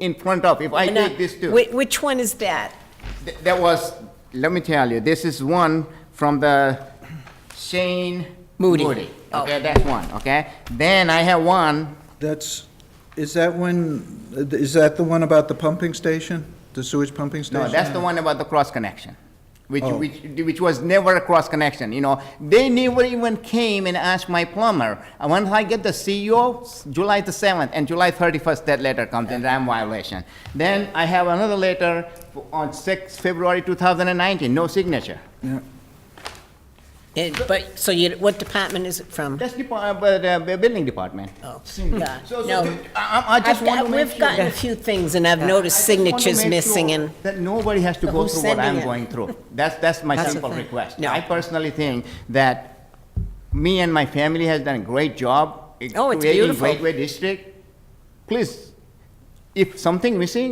in front of, if I And, uh, take this too. whi- Which one is that? Th- That was, let me tell you, this is one from the Shane Moody. Oh. Moody. Okay. Okay, that's one, okay? Then I have one, That's, is that when, is that the one about the pumping station? The sewage pumping station? no, that's the one about the cross connection, which, Oh. which, which was never a cross connection, you know? They never even came and asked my plumber. And once I get the CEO, July the seventh and July thirty-first, that letter comes in, I'm violation. Then I have another letter on six, February two thousand and nineteen, no signature. Yeah. And- Eh, But, so you, what department is it from? That's the, uh, but, uh, building department. Oh, Signature. yeah, So, so, no. th- I, I I just I've- want to I've- make We've sure gotten a that- few things, and I've I noticed just want to signatures make missing, sure and, That nobody has to go Who's through what sending I'm it? going through. That's, that's my That's the simple thing. request. No. I personally think that me and my family has done a great job. in Oh, it's creating beautiful. Gateway District. Please, if something missing,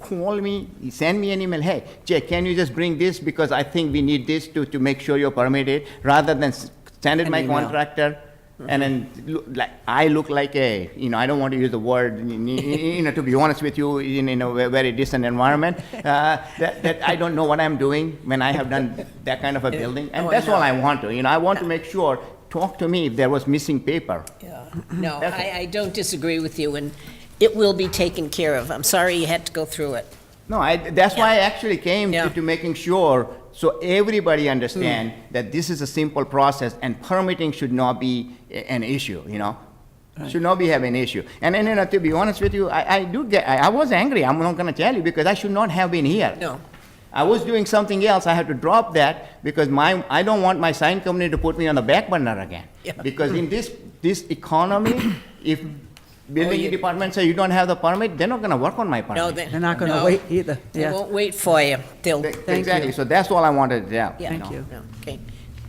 call me, send me an email, hey, Jay, can you just bring this, because I think we need this to, to make sure you're permitted, rather than s- send it An my email. contractor, and then, look like, I look like a, you know, I don't want to use the word, y- y- you know, to be honest with you, in, in a ve- very decent environment, uh, that, that I don't know what I'm doing when I have done that kind of a building, and Oh, I that's all know. I want to, you know, I want to make sure, talk to me if there was missing paper. Yeah. no, That's I, I don't disagree with you, and it will be taken care of. I'm sorry you had to go through it. No, I, that's why I actually came Yeah. Hmm. to, to making sure, so everybody understand that this is a simple process and permitting should not be a- an issue, you know? Should not be have an issue. And, and, you know, to be honest with you, I, I do get, I, I was angry, I'm not gonna tell you, because I should not have been here. No. I was doing something else, I had to drop that, because my, I don't want my sign company to put me on the back burner again. Yeah. Hmm. Because in this, this economy, if building you- department say you don't have the permit, they're not gonna work on my permit. Oh, No, they. They're not going to no, wait either. They Yeah. won't wait for you. They'll, Th- you. Exactly, so that's all I wanted to tell. yeah. Thank you. no, Okay,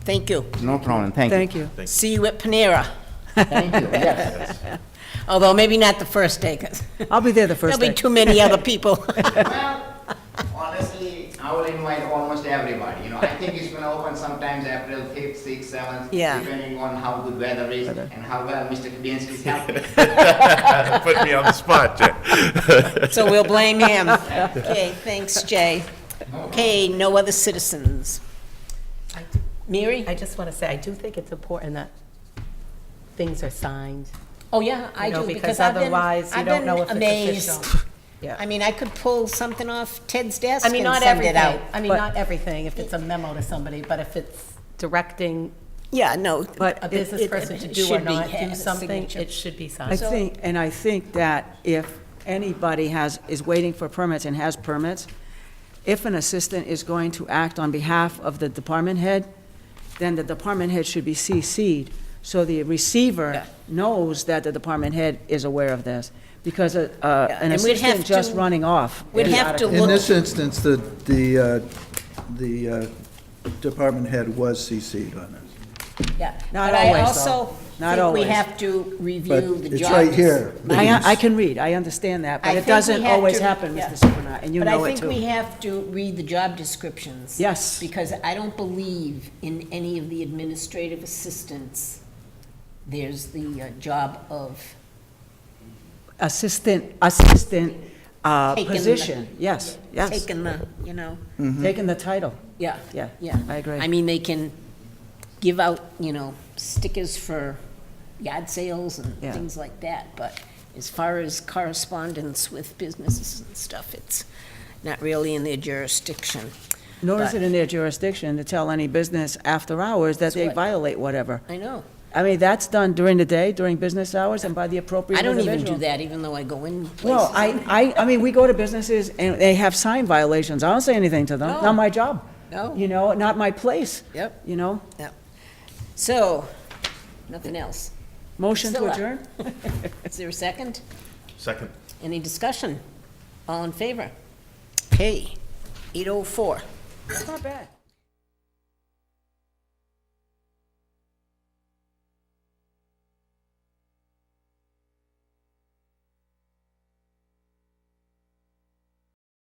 thank you. No problem, thank you. Thank you. See you at Panera, Thank you, yes. although maybe not the first day, 'cause I'll be there the first there'll day. be too many other people. Well, honestly, I will invite almost everybody, you know, I think it's gonna open sometimes April fifth, sixth, seventh, Yeah. depending on how good weather is and how well Mr. Kubiansky is helping. Put me on the spot, Jay. So we'll blame him. Okay, thanks, Jay. Okay, no other citizens. Mary? I just want to say, I do think it's important that things are signed. Oh, yeah, I You know, do, because because I've been, otherwise you I've don't been know if it's amazed. official. Yeah. I mean, I could pull something off Ted's desk I mean, and not send it out. everything. I mean, but- not everything, if it's a memo to somebody, but if it's directing Yeah, no. But a it- business it- person to it do or should be not had do a something, signature. it should be I signed. think, and I think that if anybody has, is waiting for permits and has permits, if an assistant is going to act on behalf of the department head, then the department head should be CC'd, so the receiver knows that the department head is aware of this, because a- Yeah, a- an and we'd have assistant just to- running off. We'd is have out to of look. In this instance, the, the, uh, the uh, department head was CC'd on this. Yeah. Not But I always, though. also Not think we always. have to But review the job. it's right here. I, I can read, I understand that, I but think it we doesn't have always to- happen, yeah. Mr. Supranat, and you know it But I think we too. have to read the job descriptions. Yes. Because I don't believe in any of the administrative assistants, there's the uh, job of. Assistant, assistant uh, taking the- position, yes, yes, Mm-hmm. Taking the, you know, taking the title. yeah. Yeah, Yeah. I agree. I mean, they can give out, you know, stickers for yard sales and Yeah. things like that, but as far as correspondence with businesses and stuff, it's not really in their jurisdiction. Nor is But- it in their jurisdiction to tell any business after hours that they what- violate whatever. I know. I mean, that's done during the day, during business hours, and by the appropriate I don't individual. even do that, even though I go in places. Well, I, I, I mean, we go to businesses and they have sign violations. I don't say anything to them. No. Not my job. No. You know, not my place. Oh. Yep. You know, So, nothing else. motion to Priscilla. adjourn? Is there a second? Second. Any discussion? All in favor? Okay, 8:04. It's not bad.